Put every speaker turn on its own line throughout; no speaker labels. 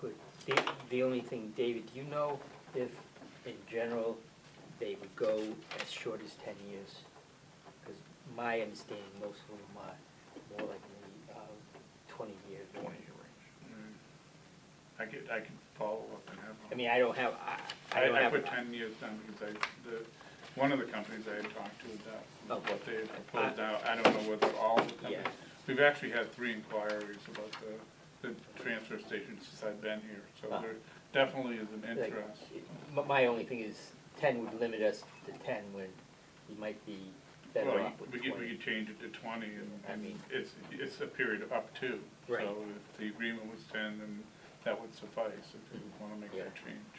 Good. The, the only thing, David, do you know if, in general, they would go as short as ten years? Because my understanding, most of them are more like the, uh, twenty years.
twenty-year range. Mm. I could, I could follow up and have.
I mean, I don't have, I, I don't
I, I
have.
put ten years down because I, the, one of the companies I had talked to about
Okay.
what they had proposed now, I don't know whether all the companies.
Oh, Yeah.
We've actually had three inquiries about the, the transfer station since I've been here, so
Ah.
there definitely is an
like,
interest.
My, my only thing is, ten would limit us to ten when we might be better
Well,
off with
we
twenty.
could, we could change it to twenty and,
I
and
mean-
it's, it's a period of up to.
Right.
So if the agreement was ten, then that would suffice if you
Mhm.
wanna make
Yeah.
that change.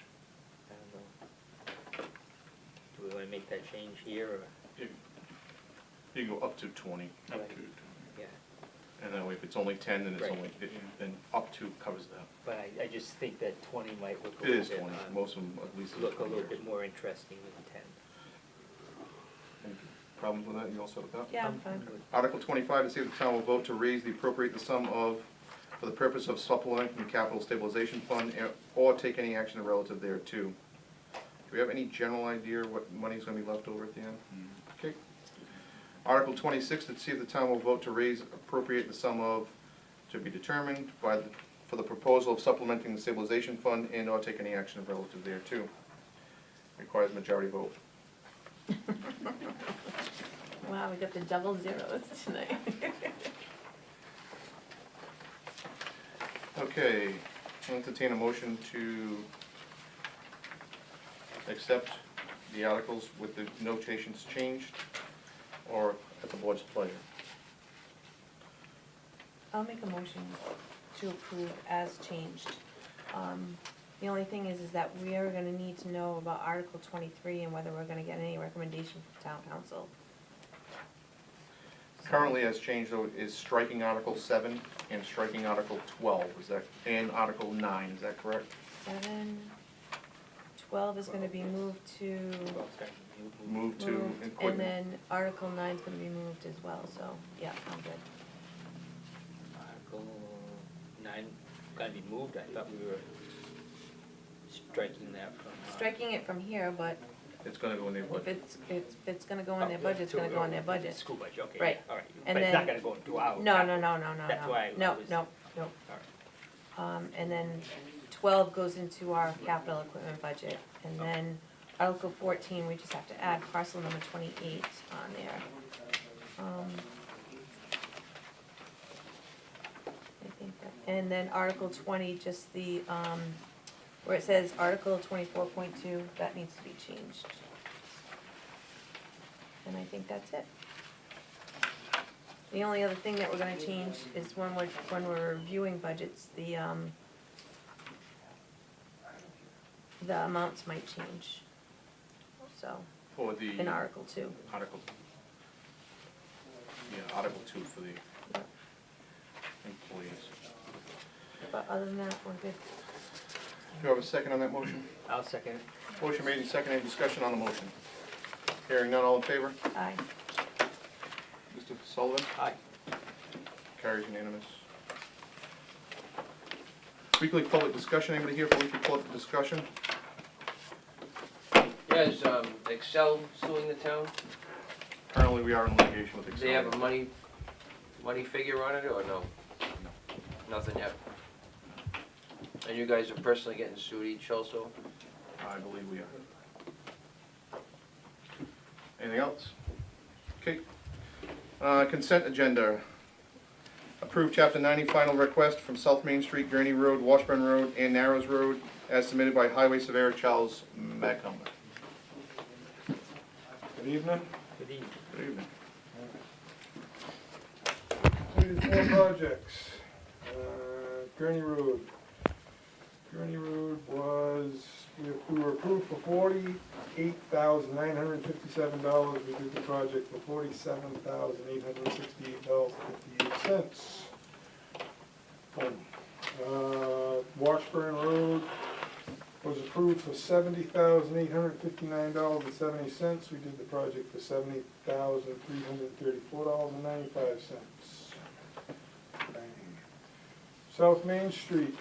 I don't know. Do we wanna make that change here, or,
You-
You can go up to twenty,
Up
Right.
to 20.
yeah,
and that way if it's only ten, then it's
Right.
only, it- then up to covers that.
but I, I just think that twenty might look a
It
little
is
bit,
twenty,
uh,
most of them at least is
look a
twenty
little
years.
bit more interesting than ten.
Any Problems with that, you all set with that?
Yeah, I'm
Um,
fine.
good.
Article twenty-five, to see if the town will vote to raise the appropriate the sum of, for the purpose of supplementing from the capital stabilization fund, eh, or take any action relative thereto. Do we have any general idea what money's gonna be left over at the end? Okay. Article twenty-six, to see if the town will vote to raise appropriate the sum of, to be determined by, the- for the proposal of supplementing the stabilization fund and or take any action relative thereto. Requires majority vote.
Wow, we got the double zeros tonight.
Okay, I'll entertain a motion to accept the articles with the notations changed, or at the board's pleasure.
I'll make a motion to approve as changed. Um, The only thing is, is that we are gonna need to know about Article twenty-three and whether we're gonna get any recommendation from town council.
Currently, as changed though, is striking Article seven and striking Article twelve, is that, and Article nine, is that correct?
Seven, twelve is gonna be moved to.
Well, it's gonna be mo- mo-
Move to
moved, And
equipment.
then Article nine's gonna be moved as well, so, yeah, I'm good.
Article nine, gotta be moved, I thought we were striking that from. uh,
Striking it from here, but
It's gonna go in there,
if
but
it's, it's- if it's gonna go in their
up
budget, it's
Oh, to,
gonna go in their
uh,
budget.
School budget, okay,
Right.
yeah, all right,
And
but it's not
then-
gonna go into our.
No, no, no, no, no, no.
Oh, That's why I
No,
was-
no, no.
All right.
Um, and then twelve goes into our capital equipment budget. And then Article fourteen, we just have to add parcel number twenty-eight on there. Um, I think that, and then Article twenty, just the, um, where it says Article twenty-four point two, that needs to be changed. And I think that's it. The only other thing that we're gonna change is when we're, when we're reviewing budgets, the, um, the amounts might change, so,
for the
in Article two.
Article, yeah, Article two for the employees.
But other than that, we're good.
Do you have a second on that motion?
I'll second it.
Motion made and seconded, Any discussion on the motion. Hearing none, all in favor?
Aye.
Mr. Sullivan?
Aye.
Carries unanimous. Weekly public discussion, anybody here for weekly public discussion?
Yeah, is um, Excel suing the town?
Currently, we are in litigation with
Do
Excel.
they have a money, money figure on it or no?
No.
Nothing yet? And you guys are personally getting sued each also?
I believe we are. Anything else? Okay. Uh, Consent agenda. Approve Chapter 90 final request from South Main Street, Gurney Road, Washburn Road, and Narrows Road, as submitted by Highway Surveyor Charles McCumber.
Good evening.
Good evening.
Good evening.
Completed four projects. Uh, Gurney Road. Gurney Road was, we- we were approved for forty-eight thousand nine hundred fifty-seven dollars. We did the project for forty-seven thousand eight hundred sixty-eight dollars fifty-eight cents. Uh, Washburn Road was approved for seventy thousand eight hundred fifty-nine dollars and seventy cents. We did the project for seventy thousand three hundred thirty-four dollars and ninety-five cents. South Main Street,